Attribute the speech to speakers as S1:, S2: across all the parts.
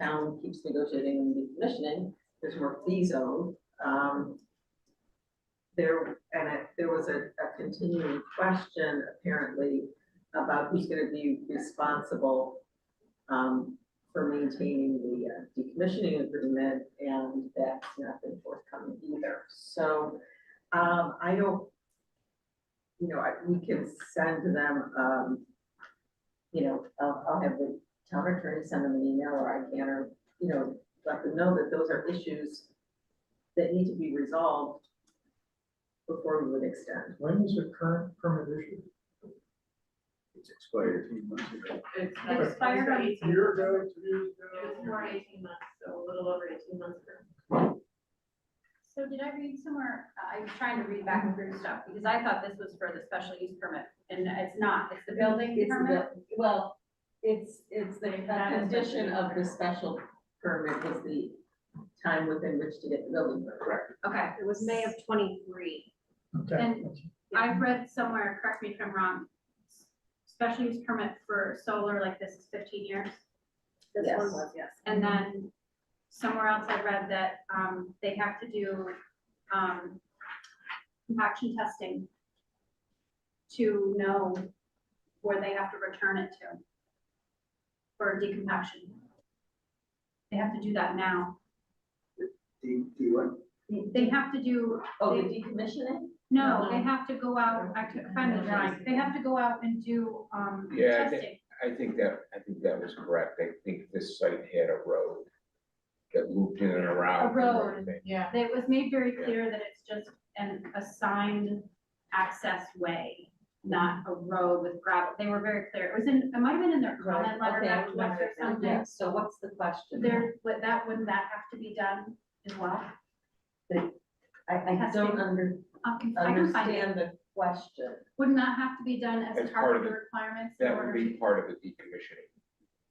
S1: town keeps negotiating and decommissioning, there's more fee zone. Um, there, and it, there was a, a continuing question apparently about who's gonna be responsible um, for maintaining the uh, decommissioning agreement, and that's not been forthcoming either. So, um, I don't, you know, I, we can send to them, um, you know, I'll, I'll have the town attorney send them an email, or I can, or, you know, let them know that those are issues that need to be resolved before we would extend.
S2: When is the current permit issued?
S3: It's expired eighteen months ago.
S4: It's expired on
S2: A
S4: eighteen.
S2: Year ago,
S4: It
S2: two
S4: was
S2: years ago?
S4: more than eighteen months, so a little over eighteen months ago.
S5: So did I read somewhere, uh, I was trying to read back through stuff, because I thought this was for the special use permit, and it's not, it's the building
S1: It's
S5: permit?
S1: the, well, it's, it's the,
S5: That
S1: the
S5: is
S1: condition
S5: definitely
S1: of the
S5: different.
S1: special permit is the time within which to get the building permit.
S3: Correct.
S5: Okay,
S6: It was May of twenty-three.
S2: Okay.
S5: And I read somewhere, correct me if I'm wrong, special use permit for solar like this is fifteen years,
S6: This
S1: Yes.
S6: one was, yes.
S5: and then somewhere else I read that, um, they have to do, um, compaction testing to know where they have to return it to for decompaction. They have to do that now.
S3: D, D one?
S5: They have to do
S1: Oh, the decommissioning?
S5: No, they have to go out, I could find the drawing, they have to go out and do, um,
S7: Yeah, I think-
S5: testing.
S7: I think that, I think that was correct. I think this site had a road that looped in and around. and
S5: road.
S7: everything.
S4: Yeah.
S5: It was made very clear that it's just an assigned access way, not a road with gravel, they were very clear, it was in, it might have been in their comment letter
S1: Okay, I
S5: back to us
S1: remember
S5: or
S1: it now.
S5: something.
S1: Yeah, so what's the question?
S5: There, but that, wouldn't that have to be done as well?
S1: I, I don't
S5: Testing.
S1: under,
S5: I can, I can find it,
S1: understand the question.
S5: wouldn't that have to be done as
S7: As
S5: part
S7: part
S5: of
S7: of
S5: the
S7: the-
S5: requirements? in
S7: That would
S5: order
S7: be
S5: to-
S7: part of the decommissioning,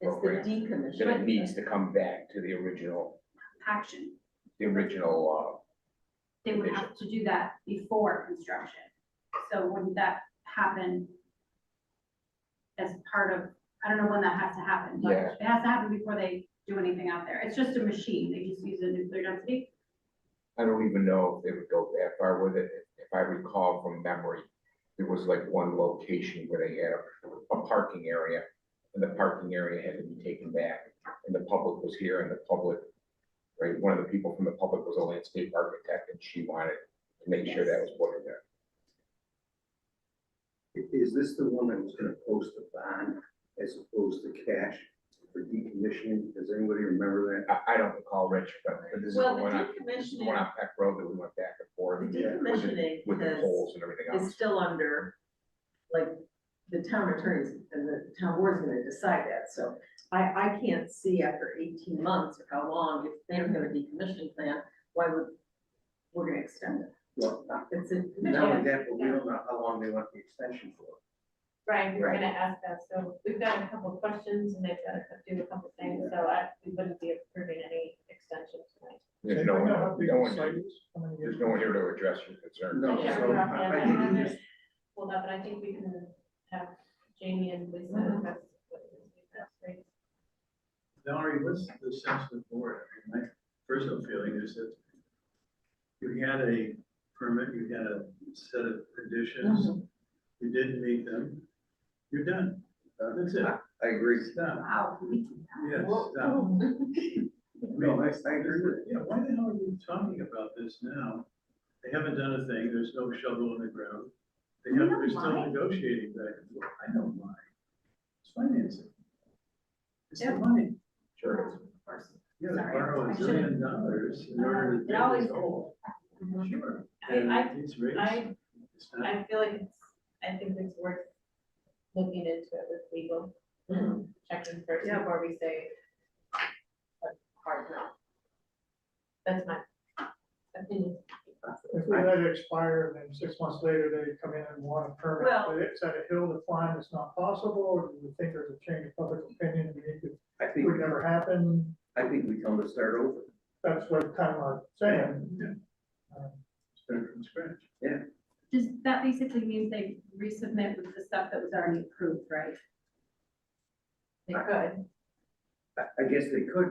S1: It's the
S7: Program. that
S1: decommissioning.
S7: it needs to come back to the original,
S5: Action,
S7: the original, uh,
S5: they would have to do that before construction. So wouldn't that happen as part of, I don't know when that has to happen, but
S7: Yeah.
S5: it has to happen before they do anything out there. It's just a machine, they just use a nuclear density.
S7: I don't even know if they would go that far with it. If I recall from memory, there was like one location where they had a, a parking area. And the parking area had to be taken back and the public was here and the public, right, one of the people from the public was a landscape architect and she wanted to make sure that was put in there.
S3: Is this the one that was gonna post the bond as opposed to cash for decommissioning? Does anybody remember
S7: I, I don't recall Rich, but but this is the
S1: Well, the
S7: one on, this is the one
S1: decommissioning,
S7: on Peck Road that we went back and forth
S1: the
S3: yeah,
S7: with the-
S1: decommissioning
S7: with the
S1: has,
S7: poles and everything
S1: is
S7: else.
S1: still under, like, the town attorneys and the town board's gonna decide that, so I, I can't see after eighteen months or how long, if they don't have a decommissioning plan, why would, we're gonna extend it.
S3: Well-
S1: It's a.
S3: that? Not only that, but we don't know how long they want the extension for.
S4: Right, we we're
S1: Right.
S4: gonna ask that, so we've got a couple of questions and they've got to do a couple of things, so I, we wouldn't be approving any extensions tonight.
S7: There's no one,
S2: Anybody know how big
S7: no
S2: the
S7: one,
S2: site is? How many
S7: there's
S2: years?
S7: no one here to address your concern.
S3: No,
S4: Yeah,
S3: so
S4: we're not
S3: I I
S4: gonna
S3: think
S4: have
S3: you
S4: it.
S3: just,
S4: Well, no, but I think we can have Jamie and Lisa,
S1: Mhm.
S4: that's what it is, that's great.
S2: Valerie, what's the sense of the board? I mean, My personal feeling is that you had a permit, you had a set of conditions,
S3: Mm-hmm.
S2: you didn't meet them, you're done. That's it.
S3: uh, I agree.
S2: Stop.
S5: Wow.
S2: Yes,
S3: Well-
S2: stop.
S3: No, I, I agree with
S2: Yeah, why the hell are we talking about this now? They haven't done a thing, there's no shovel in the ground. They have, they're still negotiating back and forth. I don't mind. It's financing. It's the
S5: Yeah.
S2: money.
S7: Sure.
S5: Of course.
S2: Yeah,
S5: Sorry,
S2: borrow
S5: I
S2: a
S5: should've-
S2: zillion dollars in order to.
S4: It
S2: pay
S4: always
S2: this old. Sure.
S4: I- I-
S2: And these rates,
S4: I-
S2: it's not-
S4: I feel like it's, I think it's worth looking into it with legal, checking first
S1: Yeah.
S4: before we say a hard no. That's my opinion.
S8: If we let it expire and then six months later they come in and want a permit,
S1: Well-
S8: but it's at a hill to climb, it's not possible, or do you think there's a change of public opinion, we need to,
S3: I
S8: it
S3: think,
S8: would never happen,
S3: I think we come to start over.
S8: that's what kind of I'm saying. Uh,
S2: Start from scratch.
S5: Does, that basically means they resubmit with the stuff that was already approved, right?
S4: They could.
S3: I, I guess they could,